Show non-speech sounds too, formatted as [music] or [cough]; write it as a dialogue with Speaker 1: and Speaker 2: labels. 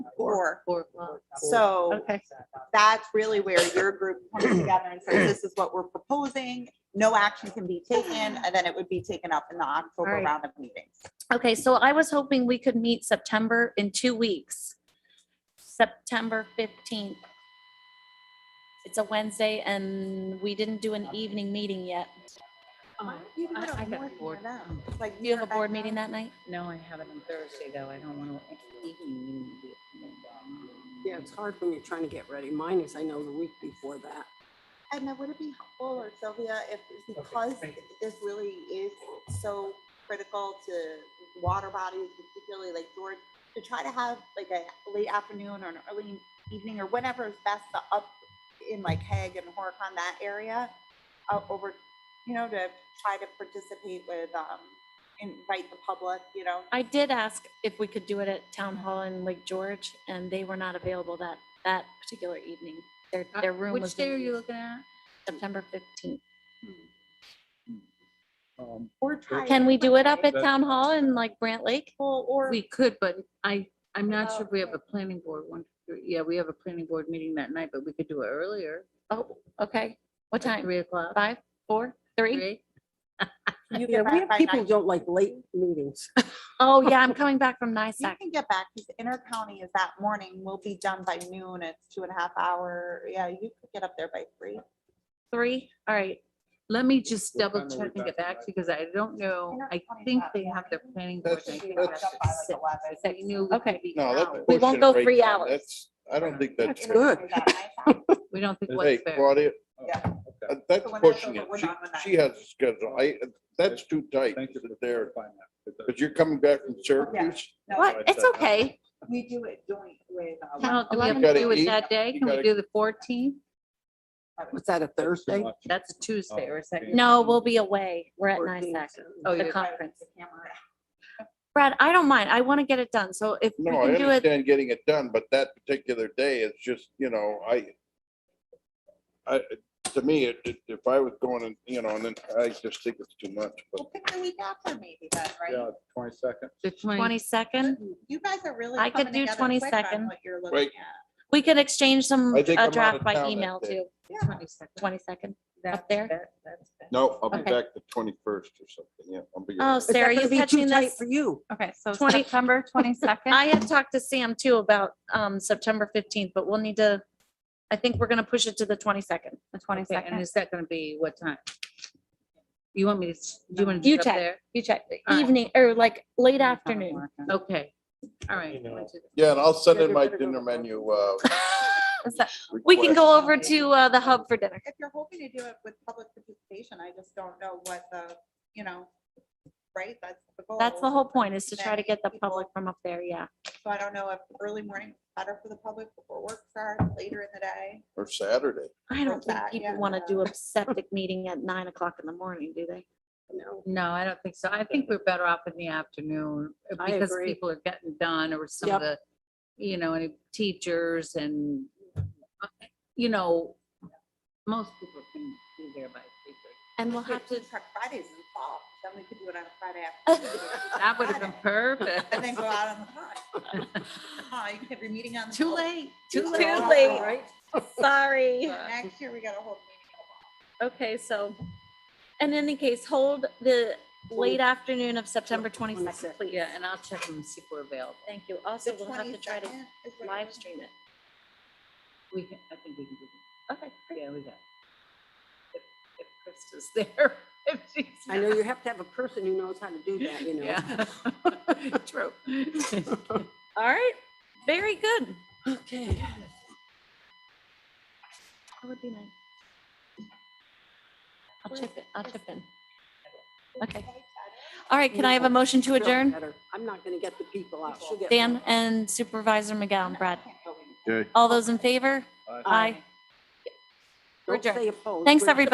Speaker 1: four.
Speaker 2: Four o'clock.
Speaker 1: So
Speaker 2: Okay.
Speaker 1: that's really where your group [clears throat] comes together and says, this is what we're proposing. No action can be taken, and then it would be taken up in the October
Speaker 2: Alright.
Speaker 1: round of meetings.
Speaker 2: Okay, so I was hoping we could meet September in two weeks. September fifteenth. It's a Wednesday and we didn't do an evening meeting yet. Um,
Speaker 3: Oh,
Speaker 1: You
Speaker 3: I- I got bored.
Speaker 1: Like
Speaker 2: Do you have a board meeting that night?
Speaker 3: No, I have it on Thursday though. I don't want to. evening meeting.
Speaker 4: Yeah, it's hard when you're trying to get ready. Mine is, I know, the week before that.
Speaker 1: And then would it be helpful or Sylvia, if, because this really is so critical to water bodies, particularly like George, to try to have like a late afternoon or an early evening or whenever is best to up in like Hague and Horicon, that area, uh, over, you know, to try to participate with, um, invite the public, you know?
Speaker 2: I did ask if we could do it at Town Hall in Lake George and they were not available that, that particular evening. Their, their room was.
Speaker 3: Uh, Which day are
Speaker 2: empty.
Speaker 3: you looking at?
Speaker 2: September fifteenth.
Speaker 5: Um,
Speaker 1: Or try
Speaker 2: Can we do it up at
Speaker 5: That-
Speaker 2: Town Hall in like Brant Lake?
Speaker 1: Well, Or,
Speaker 3: We could, but I, I'm not sure if we have
Speaker 1: Okay.
Speaker 3: a planning board one. Yeah, we have a planning board meeting that night, but we could do it earlier.
Speaker 2: Oh, okay. What
Speaker 3: like
Speaker 2: time?
Speaker 3: Three o'clock.
Speaker 2: Five, four, three?
Speaker 3: Three?
Speaker 1: you
Speaker 4: Yeah,
Speaker 1: get
Speaker 4: we
Speaker 1: back
Speaker 4: have
Speaker 1: by
Speaker 4: people
Speaker 1: nine.
Speaker 4: who don't like late meetings.
Speaker 2: Oh, yeah, I'm coming back from
Speaker 1: You
Speaker 2: NISAC.
Speaker 1: can get back, because intercounty is that morning, we'll be done by noon, it's two and a half hour, yeah, you could get up there by three.
Speaker 2: Three, all right.
Speaker 3: Let me just
Speaker 5: What
Speaker 3: double
Speaker 5: time are we
Speaker 3: check and get
Speaker 5: back
Speaker 3: back
Speaker 5: tonight?
Speaker 3: because I don't know. I
Speaker 1: Intercounty's
Speaker 3: think
Speaker 1: not
Speaker 3: they
Speaker 1: that
Speaker 3: have
Speaker 1: [laughs]
Speaker 3: their planning board.
Speaker 5: That's-
Speaker 3: I think
Speaker 5: that's-
Speaker 3: that's at six. I knew we
Speaker 2: Okay.
Speaker 3: could be
Speaker 5: No,
Speaker 3: out.
Speaker 5: that.
Speaker 2: We won't
Speaker 5: portion
Speaker 2: go
Speaker 5: right
Speaker 2: three
Speaker 5: there,
Speaker 2: hours.
Speaker 5: That's, I don't think that's.
Speaker 3: [laughs]
Speaker 5: fair.
Speaker 4: good.
Speaker 3: We don't think
Speaker 5: Hey,
Speaker 3: what's fair.
Speaker 5: Claudia,
Speaker 1: Yeah.
Speaker 5: uh, that's
Speaker 1: So we're not
Speaker 5: pushing
Speaker 1: sure,
Speaker 5: it.
Speaker 1: but we're
Speaker 5: She,
Speaker 1: not on that.
Speaker 5: she has a schedule. I, uh, that's too tight
Speaker 6: Thank you for
Speaker 5: there.
Speaker 6: clarifying that.
Speaker 5: Because you're coming back from Syracuse.
Speaker 2: What? It's okay.
Speaker 1: We do it joint with. uh,
Speaker 3: How- Do we have
Speaker 2: Eleven
Speaker 3: to
Speaker 5: to
Speaker 3: do it
Speaker 5: eight.
Speaker 3: that day?
Speaker 5: You
Speaker 3: Can we
Speaker 5: gotta-
Speaker 3: do the fourteenth?
Speaker 4: Was that a
Speaker 6: That's too
Speaker 4: Thursday?
Speaker 6: much.
Speaker 3: That's a Tuesday or is that?
Speaker 6: okay.
Speaker 2: No, we'll be away. We're at
Speaker 4: 14th?
Speaker 2: NISAC,
Speaker 3: Oh,
Speaker 2: the
Speaker 3: you're-
Speaker 2: conference.
Speaker 1: the camera.
Speaker 2: Brad, I don't mind. I want to get it done. So if we
Speaker 5: No, I
Speaker 2: can do it,
Speaker 5: understand getting it done, but that particular day is just, you know, I, I, to me, it- it- if I was going and, you know, and then I just think it's too much, but
Speaker 1: We'll pick the week after maybe then, right?
Speaker 6: Yeah, twenty-second.
Speaker 3: the 20
Speaker 2: twenty-second,
Speaker 1: You guys are really.
Speaker 2: I could
Speaker 1: coming
Speaker 2: do
Speaker 1: together quick on
Speaker 2: 22nd.
Speaker 1: What you're looking
Speaker 5: Wait.
Speaker 1: at.
Speaker 2: we can exchange some,
Speaker 5: I think I'm
Speaker 2: a
Speaker 5: out
Speaker 2: draft
Speaker 5: of
Speaker 2: by
Speaker 5: town that
Speaker 2: email
Speaker 5: day.
Speaker 2: too. Twenty-second.
Speaker 3: That's
Speaker 2: there?
Speaker 3: bet- that's bet.
Speaker 5: no, I'll be
Speaker 2: Okay.
Speaker 5: back the twenty-first or something, yeah. I'll be
Speaker 2: Oh,
Speaker 5: around.
Speaker 4: Is that
Speaker 2: Sarah,
Speaker 4: gonna
Speaker 2: you
Speaker 4: be too
Speaker 2: catching
Speaker 4: tight
Speaker 2: this?
Speaker 4: For you.
Speaker 7: Okay,
Speaker 2: [laughs]
Speaker 7: so
Speaker 2: 20
Speaker 7: September twenty-second.
Speaker 2: I had talked to Sam too about um September fifteenth, but we'll need to, I think we're gonna push it to the twenty-second.
Speaker 7: The
Speaker 3: Okay, And
Speaker 7: twenty-second.
Speaker 3: is that gonna be what time? You want me to, s- do you want to?
Speaker 2: You check. You check,
Speaker 3: All right.
Speaker 2: evening or like late afternoon.
Speaker 3: Okay, all right.
Speaker 5: Yeah, and I'll send
Speaker 4: Yeah,
Speaker 5: in
Speaker 4: we
Speaker 5: my
Speaker 4: better go to
Speaker 5: dinner
Speaker 4: the
Speaker 5: menu, uh.
Speaker 2: Is that- [laughs] [laughs] We can
Speaker 5: request.
Speaker 2: go over to uh the hub for dinner.
Speaker 1: If you're hoping to do it with public participation, I just don't know what the, you know, right, that's the goal.
Speaker 2: That's the whole point is to try to
Speaker 1: Then
Speaker 2: get the
Speaker 1: people-
Speaker 2: public from up there, yeah.
Speaker 1: So I don't know if early morning is better for the public before work starts, later in the day.
Speaker 5: Or Saturday.
Speaker 2: I don't think
Speaker 1: that, yeah.
Speaker 2: people want to do a septic [laughs] meeting at nine o'clock in the morning, do they?
Speaker 3: No, I don't think so. I think we're better off in the afternoon uh,
Speaker 4: I
Speaker 3: because
Speaker 4: agree.
Speaker 3: people are getting done or some of the, you know, any teachers and, uh, you know, most people can be there by three thirty.
Speaker 2: And we'll
Speaker 1: We
Speaker 2: have
Speaker 1: could [laughs]
Speaker 2: to,
Speaker 1: do Truck Fridays in the fall, then we could do it on a
Speaker 2: [laughs]
Speaker 1: Friday afternoon.
Speaker 3: That would have been perfect. [laughs]
Speaker 1: And then go out on the hot. You could have your meeting on. the
Speaker 3: Too
Speaker 1: hot.
Speaker 3: late.
Speaker 2: Too late. sorry.
Speaker 1: Next year, we got a whole meeting.
Speaker 2: Okay, so, in any case, hold the late afternoon of September twenty-second,
Speaker 4: 22nd,
Speaker 2: please.
Speaker 3: Yeah, and I'll check and see if we're available.
Speaker 2: Thank you. Also,
Speaker 1: on the
Speaker 2: we'll have to try to
Speaker 1: 22nd is what it
Speaker 2: live
Speaker 1: is.
Speaker 2: stream it.
Speaker 3: We can, I think we can do that.
Speaker 2: Okay.
Speaker 3: Yeah, we got. it. If if Krista's there, [laughs] if she's.
Speaker 4: I know you have to have a person who knows how to do that, you know.
Speaker 3: Yeah. [laughs] True.
Speaker 4: [laughs]
Speaker 3: [laughs]
Speaker 2: All right, very good.
Speaker 4: Okay.
Speaker 2: That would be nice. I'll chip in, I'll chip in. Okay. All right, can I have a motion to
Speaker 4: Feel
Speaker 2: adjourn?
Speaker 4: better. I'm not gonna get the people out. She'll get
Speaker 2: Dan
Speaker 4: one.
Speaker 2: and Supervisor McGowan, Brad.
Speaker 4: Oh,
Speaker 5: Okay.
Speaker 2: All those in favor?
Speaker 6: Aye.
Speaker 2: Aye.
Speaker 4: Don't
Speaker 2: adjourn.
Speaker 4: say opposed.
Speaker 2: Thanks,
Speaker 4: We're-
Speaker 2: everybody.